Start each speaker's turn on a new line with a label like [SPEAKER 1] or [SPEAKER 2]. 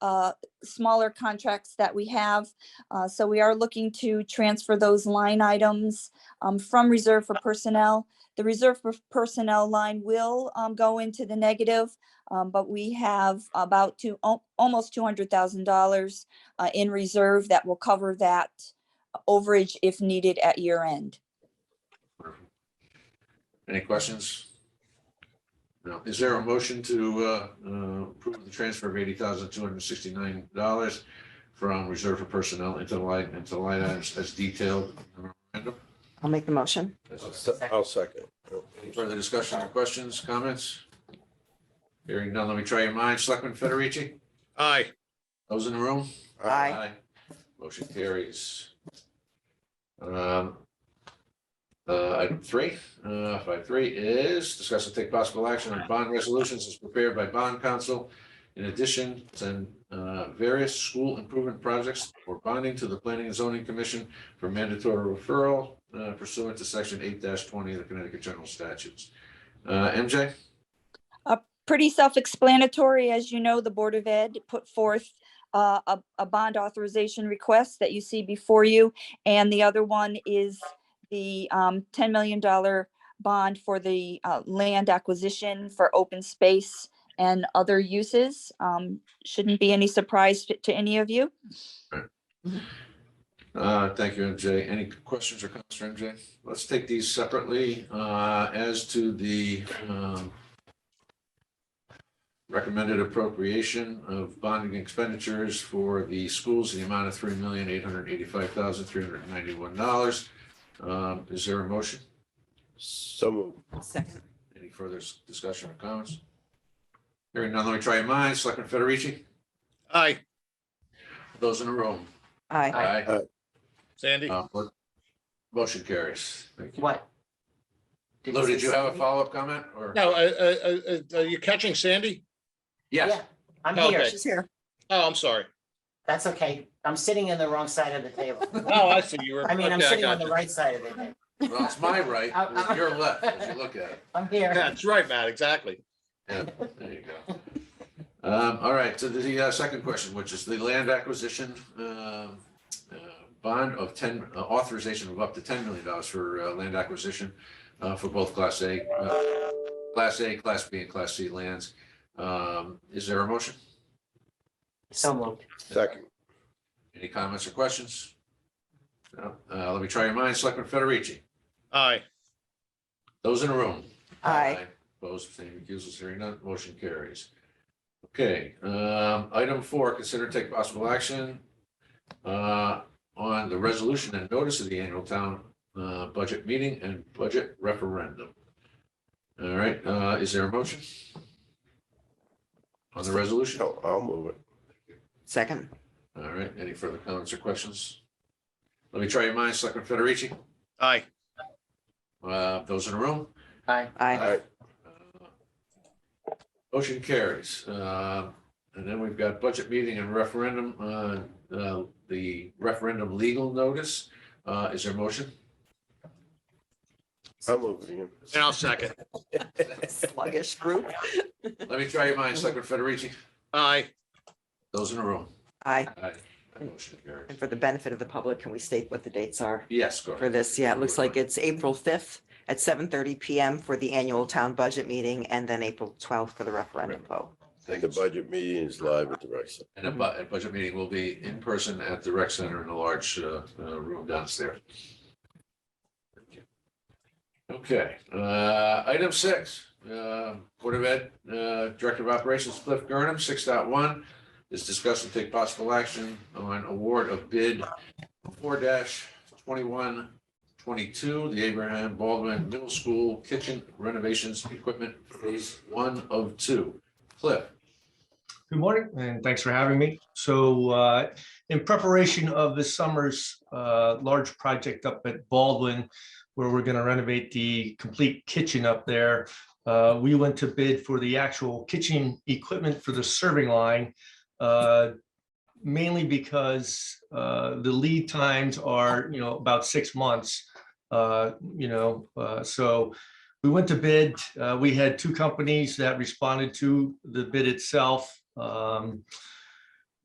[SPEAKER 1] uh, smaller contracts that we have. Uh, So we are looking to transfer those line items um, from reserve for personnel. The reserve for personnel line will um, go into the negative, um, but we have about two, al- almost $200,000 uh, in reserve that will cover that uh, overage if needed at year end.
[SPEAKER 2] Any questions? No. Is there a motion to uh, uh, approve the transfer of eighty thousand two hundred sixty-nine dollars from reserve for personnel into the line, into the line items as detailed? in the memorandum?
[SPEAKER 3] I'll make the motion.
[SPEAKER 4] I'll se- I'll second.
[SPEAKER 2] Any Further discussion or questions, comments? Hearing none, let me try your minds. Selectman Federici,
[SPEAKER 5] Aye.
[SPEAKER 2] those in the room?
[SPEAKER 3] Aye.
[SPEAKER 2] Motion carries. Um, uh, Item three, uh, five three is discuss and take possible action on bond resolutions as prepared by bond council. In addition, send uh, various school improvement projects for bonding to the Planning and Zoning Commission for mandatory referral uh, pursuant to section eight twenty of the Connecticut General Statutes. Uh, MJ,
[SPEAKER 1] pretty self-explanatory. As you know, the Board of Ed put forth uh, a, a bond authorization request that you see before you. And the other one is the um, $10 million bond for the uh, land acquisition for open space and other uses. Um, Shouldn't be any surprise to- to any of you.
[SPEAKER 2] Uh, Thank you, MJ. Any questions or comments for MJ? Let's take these separately. Uh, As to the um, recommended appropriation of bonding expenditures for the schools in the amount of three million, eight hundred eighty-five thousand, three hundred ninety-one dollars. Um, Is there a motion?
[SPEAKER 4] So moved.
[SPEAKER 3] Second.
[SPEAKER 2] Any further s- discussion or comments? Hearing none, let me try your minds. Selectman Federici,
[SPEAKER 5] Aye.
[SPEAKER 2] those in the room?
[SPEAKER 3] Aye.
[SPEAKER 5] Sandy?
[SPEAKER 2] Uh, mo- Motion carries. Thank you.
[SPEAKER 6] What?
[SPEAKER 2] Lou, did you
[SPEAKER 6] say
[SPEAKER 2] have a
[SPEAKER 6] something?
[SPEAKER 2] follow-up comment or?
[SPEAKER 5] No, uh, I, I, I, are you catching Sandy?
[SPEAKER 2] Yes.
[SPEAKER 6] Yeah, I'm
[SPEAKER 5] Okay.
[SPEAKER 6] here.
[SPEAKER 3] She's here.
[SPEAKER 5] Oh, I'm sorry.
[SPEAKER 6] That's okay. I'm sitting in the wrong side of the table.
[SPEAKER 5] Oh, I see you were.
[SPEAKER 6] I mean, I'm
[SPEAKER 5] okay,
[SPEAKER 6] sitting
[SPEAKER 5] got
[SPEAKER 6] on the
[SPEAKER 5] you.
[SPEAKER 6] right side of the table.
[SPEAKER 2] Well, it's my right,
[SPEAKER 6] I- I-
[SPEAKER 2] it's your left, as you look at it.
[SPEAKER 6] I'm here.
[SPEAKER 5] That's right, Matt, exactly.
[SPEAKER 2] There you go. Um, all right, so the uh, second question, which is the land acquisition, um, uh, bond of ten, uh, authorization of up to ten million dollars for, uh, land acquisition, uh, for both class A, uh, class A, class B and class C lands. Um, is there a motion?
[SPEAKER 6] So moved.
[SPEAKER 4] Second.
[SPEAKER 2] Any comments or questions? No? Uh, let me try your minds. Selectman Federici,
[SPEAKER 5] Aye.
[SPEAKER 2] those in the room?
[SPEAKER 3] Aye.
[SPEAKER 2] Opposed, abstaining, recusals, hearing none, motion carries. Okay, um, item four, consider and take possible action uh, on the resolution and notice of the annual town uh, budget meeting and budget referendum. All right, uh, is there a motion? On the resolution?
[SPEAKER 4] No, Oh, I'll move it.
[SPEAKER 3] Second.
[SPEAKER 2] All right, any further comments or questions? Let me try your minds, Selectman Federici,
[SPEAKER 5] Aye.
[SPEAKER 2] Uh, those in the room?
[SPEAKER 6] Aye.
[SPEAKER 3] Aye.
[SPEAKER 2] Motion carries. Uh, And then we've got budget meeting and referendum, uh, uh, the referendum legal notice. Uh, Is there a motion?
[SPEAKER 4] I'll move it again.
[SPEAKER 5] And I'll second.
[SPEAKER 3] Sluggish group.
[SPEAKER 2] Let me try your mind, Selectman Federici.
[SPEAKER 5] Aye.
[SPEAKER 2] Those in the room?
[SPEAKER 3] Aye.
[SPEAKER 2] Aye. Motion carries.
[SPEAKER 3] And for the benefit of the public, can we state what the dates are
[SPEAKER 2] Yes, go
[SPEAKER 3] for
[SPEAKER 2] ahead.
[SPEAKER 3] this? Yeah, it looks like it's April fifth at seven thirty PM for the annual town budget meeting and then April twelfth for the referendum vote.
[SPEAKER 4] The budget meeting is live at the rec center.
[SPEAKER 2] And a bu- a budget meeting will be in person at the rec center in a large uh, uh, room downstairs. Okay, uh, item six, uh, Board of Ed, uh, Director of Operations Cliff Gurnham, six point one is discuss and take possible action on award of bid four twenty-one twenty-two, the Abraham Baldwin Middle School Kitchen Renovations Equipment Phase One of Two. Cliff,
[SPEAKER 7] Good morning, and thanks for having me. So uh, in preparation of this summer's uh, large project up at Baldwin, where we're going to renovate the complete kitchen up there, uh, we went to bid for the actual kitchen equipment for the serving line, uh, mainly because uh, the lead times are, you know, about six months. uh, You know, uh, so we went to bid. uh, We had two companies that responded to the bid itself. Um,